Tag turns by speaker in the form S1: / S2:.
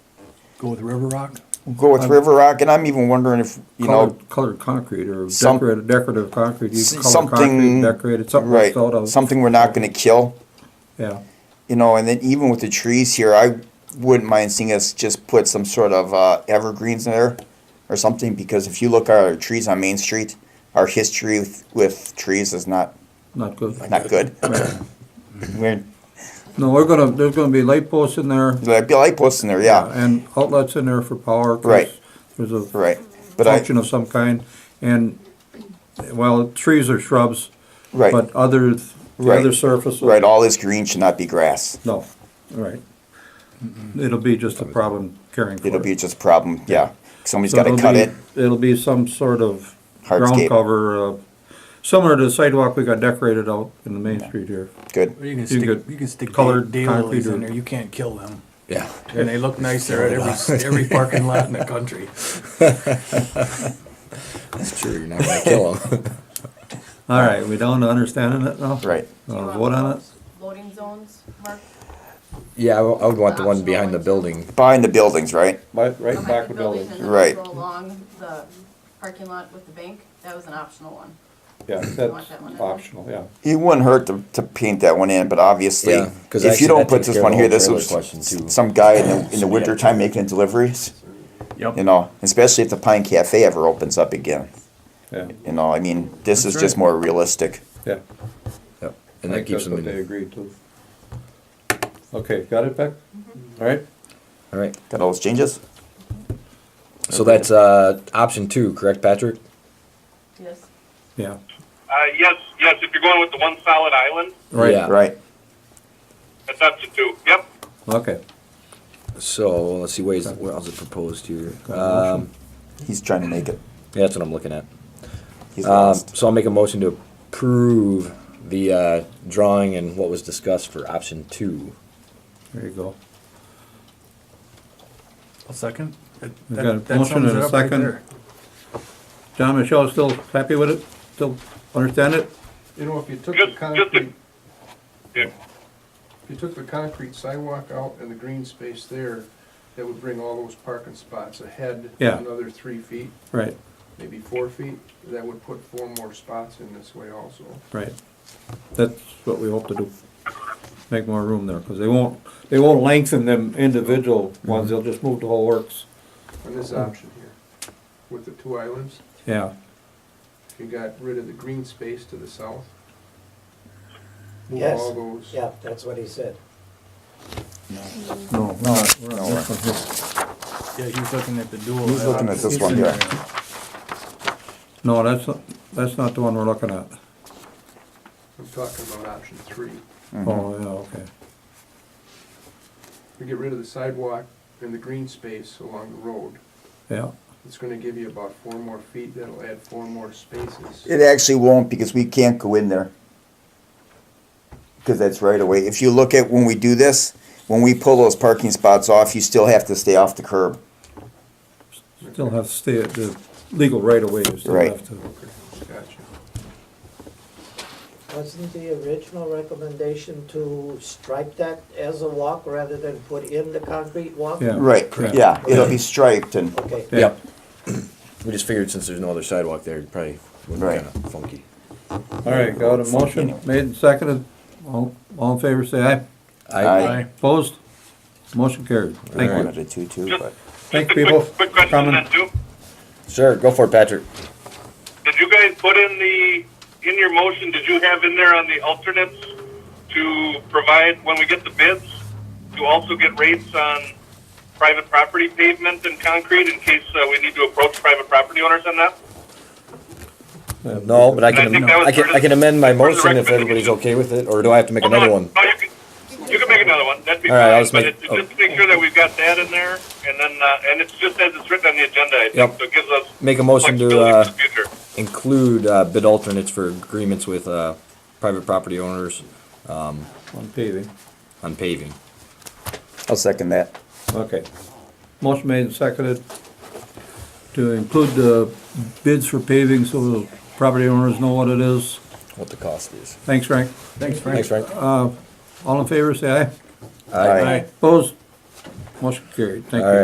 S1: Go with River Rock?
S2: Go
S3: Um,
S2: with River Rock, and I'm even wondering if, you know,
S3: Colored, colored concrete or
S2: Some-
S3: decorated, decorative concrete, you
S2: s-
S3: can color concrete,
S2: something,
S3: decorated, something
S2: right,
S3: that's out of,
S2: something we're not gonna kill,
S3: yeah.
S2: you know, and then even with the trees here, I wouldn't mind seeing us just put some sort of, uh, evergreens in there or something, because if you look at our trees on Main Street, our history with, with trees is not,
S3: Not good.
S2: not good.
S3: Right.
S2: We're,
S3: No, we're gonna, there's gonna be light posts in there.
S2: there'd be light posts in there, yeah,
S3: And outlets in there for power. 'cause
S2: Right.
S3: There's a
S2: right, but I,
S3: function of some kind, and, well, trees or shrubs,
S2: right,
S3: but other, the
S2: Right.
S3: other surfaces.
S2: right, all this green should not be grass.
S3: No, right. It'll be just a problem caring for it.
S2: It'll be just a problem, yeah, somebody's
S3: So
S2: gotta
S3: it'll
S2: cut
S3: be-
S2: it,
S3: It'll be some sort of ground
S2: Hardscape.
S3: cover, uh, similar to the sidewalk we got decorated out in the main street here.
S2: good.
S1: Or you can
S3: You
S1: stick,
S3: could
S1: you can stick
S3: color
S1: daylilies
S3: concrete or-
S1: in there, you can't kill them.
S4: Yeah.
S1: And they look nicer at every, every parking lot in the country.
S4: It's true. You're not gonna kill them.
S3: All right, we down to understanding it now?
S2: Right.
S5: Do you
S3: Uh,
S5: want
S3: vote on it?
S5: those Loading zones, Mark?
S4: yeah, I w- I would want the one behind the building.
S2: Behind the buildings, right?
S3: Right, right
S5: Behind
S3: back the building,
S5: and then
S2: Right.
S5: Go along the parking lot with the bank, that was an optional one.
S3: yeah,
S5: want
S3: that's
S5: that one in there?
S3: optional, yeah.
S2: It wouldn't hurt to, to paint that one in, but obviously,
S4: Yeah, 'cause
S2: if you
S4: actually
S2: don't
S4: that
S2: put
S4: takes
S2: this
S4: care of
S2: one
S4: the
S2: here,
S4: whole
S2: this
S4: trailer
S2: was
S4: question, too.
S2: some guy in the, in the wintertime making deliveries.
S1: Yep.
S2: You know, especially if the Pine Cafe ever opens up again.
S3: Yeah,
S2: You know, I mean, this is
S3: That's
S2: just
S3: right.
S2: more realistic.
S3: yeah.
S4: Yep.
S3: I
S4: And that
S3: think
S4: keeps
S3: that's what
S4: them
S3: They
S4: in.
S3: agreed to. Okay, got it, Beck?
S5: Mm-hmm.
S3: All right,
S4: All right.
S2: Got all those changes?
S4: So that's uh, option two, correct, Patrick?
S5: Yes,
S3: yeah.
S6: Uh, yes, yes, if you're going with the one solid island,
S3: Right,
S4: Yeah.
S2: Right.
S6: that's option two. Yep.
S3: okay.
S4: So let's see. Where, is, where else is it proposed here?
S3: Got a
S4: Um,
S2: He's trying to make it.
S4: yeah, that's what I'm looking at.
S2: He's
S4: Um,
S2: lost.
S4: so I'll make a motion to approve the uh, drawing and what was discussed for option two.
S3: There you go.
S1: A second? That-
S3: We've
S1: that-
S3: got a
S1: that
S3: motion
S1: sums
S3: and
S1: it
S3: a
S1: up right
S3: second.
S1: there.
S3: John, Michelle, still happy with it? Still understand it?
S7: You know, if you took the
S6: Just, just
S7: concrete,
S6: to, yeah,
S7: if you took the concrete sidewalk out and the green space there, that would bring all those parking spots ahead
S3: Yeah.
S7: another three feet,
S3: Right,
S7: maybe four feet. That would put four more spots in this way also.
S3: right. That's what we hope to do. Make more room there, because they won't, they won't lengthen them individual ones, they'll just move the whole works.
S7: On this option here, with the two islands,
S3: Yeah,
S7: you got rid of the green space to the south. Move
S8: Yes.
S7: all those,
S8: Yeah, that's what he said.
S3: no, we're not, we're not looking here.
S1: Yeah, he's looking at the dual.
S2: He's looking at this
S1: It's
S2: one
S1: in
S2: here.
S1: there.
S3: No, that's, not- that's not the one we're looking at.
S7: I'm talking about option three.
S3: Oh, yeah, okay.
S7: You get rid of the sidewalk and the green space along the road.
S3: Yeah,
S7: It's gonna give you about four more feet. That'll add four more spaces.
S2: It actually won't because we can't go in there. Because that's right away. If you look at when we do this, when we pull those parking spots off, you still have to stay off the curb.
S3: still have to stay at the legal right of way, you still
S2: Right.
S3: have to.
S7: Gotcha.
S8: Wasn't the original recommendation to stripe that as a walk rather than put in the concrete walk?
S3: Yeah.
S2: Right,
S3: Correct.
S2: yeah, it'll be striped and,
S8: Okay,
S3: Yeah.
S4: Yep. We just figured since there's no other sidewalk there, it probably would be
S2: Right.
S4: kind of funky.
S3: All right, got a motion made and seconded. All, all in favor, say aye.
S2: Aye.
S1: Aye.
S3: Opposed? Motion carried.
S2: I
S3: Thank you.
S2: wanted a two-two, but.
S3: Thanks,
S6: Just a quick-
S3: people.
S6: Quick question on
S3: coming.
S6: that too.
S4: Sure, go for it, Patrick.
S6: Did you guys put in the, in your motion, did you have in there on the alternates to provide, when we get the bids, to also get rates on private property pavement and concrete in case uh, we need to approach private property owners on that?
S4: No, but I
S6: I
S4: can,
S6: think that was
S4: I can,
S6: part of-
S4: I can amend my
S6: part of the
S4: motion if everybody's
S6: recommendation.
S4: okay with it, or do I have to make
S6: Well, no,
S4: another one?
S6: No, you can, you can make another one, that'd be
S4: All right, I'll
S6: fine,
S4: just
S6: but
S4: make- oh.
S6: it- just to make sure that we've got that in there, and then, uh, and it's just as it's written on the agenda, I think,
S4: Yep.
S6: so it gives us
S4: Make a motion to,
S6: flexibility for
S4: uh,
S6: the future.
S4: include, uh, bid alternates for agreements with, uh, private property owners
S3: On paving.
S4: on paving.
S2: I'll second that.
S3: Okay. Motion made and seconded to include the bids for paving so the property owners know what it is.
S4: What the cost is.
S3: Thanks, Frank.
S1: Thanks, Frank.
S4: Thanks, Frank.
S3: All in favor, say aye.
S2: Aye.
S3: Opposed? Motion carried. Thank you.
S4: All right.